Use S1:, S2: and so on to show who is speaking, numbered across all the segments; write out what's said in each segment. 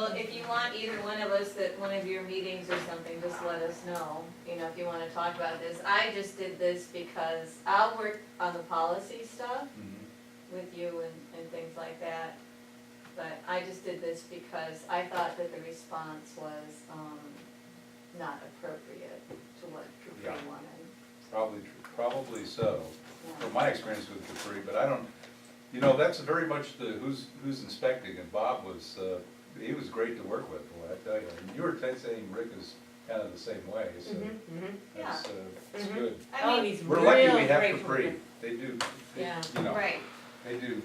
S1: want either one of us at one of your meetings or something, just let us know, you know, if you wanna talk about this. I just did this because I'll work on the policy stuff with you and, and things like that. But I just did this because I thought that the response was, um, not appropriate to what Capri
S2: Yeah.
S1: wanted.
S2: Probably, probably so,
S1: Yeah.
S2: from my experience with Capri, but I don't, you know, that's very much the who's, who's inspecting, and Bob was, uh, he was great to work with, boy, I tell you. And you were saying Rick is kind of the same way, so
S3: Mm-hmm.
S2: that's, uh, it's
S3: Mhm.
S2: good.
S1: I mean,
S3: he's
S2: We're lucky we have Capri, they do, they-
S1: Yeah.
S2: you know,
S1: right,
S2: they do,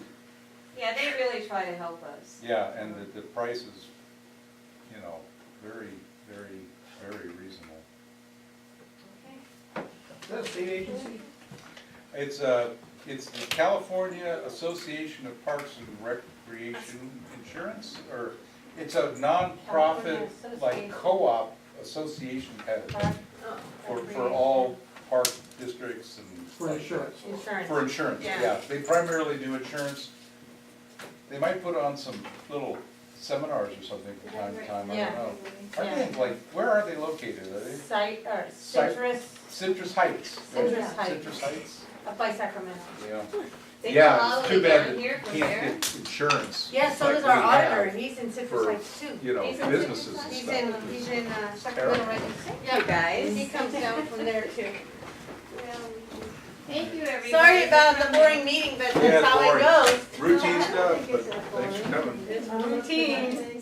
S1: yeah, they really try to help us.
S2: yeah, and the, the price is, you know, very, very, very reasonable.
S1: Okay.
S4: That's the agency.
S2: It's uh it's the California Association of Parks and Recreation Insurance, or it's a nonprofit, like co-op association kind of thing for, for all park districts and.
S4: For insurance.
S3: Insurance.
S2: For insurance,
S3: Yeah.
S2: yeah. They primarily do insurance. They might put on some little seminars or something from time to time, I
S3: Yeah.
S2: don't know. I
S3: Yeah.
S2: think, like, where are they located? Are they
S3: Site, or
S2: Site-
S3: citrus,
S2: Citrus Heights? right?
S3: Citrus Heights.
S2: Citrus Heights,
S3: up by Sacramento.
S2: yeah.
S1: They
S2: Yeah,
S1: come all
S2: it's
S1: the
S2: too
S1: way
S2: bad
S1: down
S2: that
S1: here from
S2: can't
S1: there.
S2: get Insurance.
S3: Yeah, so
S2: like
S3: does our
S2: we
S3: auditor,
S2: have,
S3: he's in citrus
S2: for-
S3: lights too.
S2: You know,
S1: He's in
S2: businesses and
S3: He's in,
S2: stuff.
S3: he's in uh, Sacramento right
S1: Yeah,
S3: now.
S1: guys.
S3: He comes down from there too.
S1: Thank you, everybody.
S3: Sorry about the boring meeting, but
S2: Yeah,
S3: that's how
S2: boring.
S3: it goes.
S2: Routine stuff, but thanks for coming.
S3: It's routine.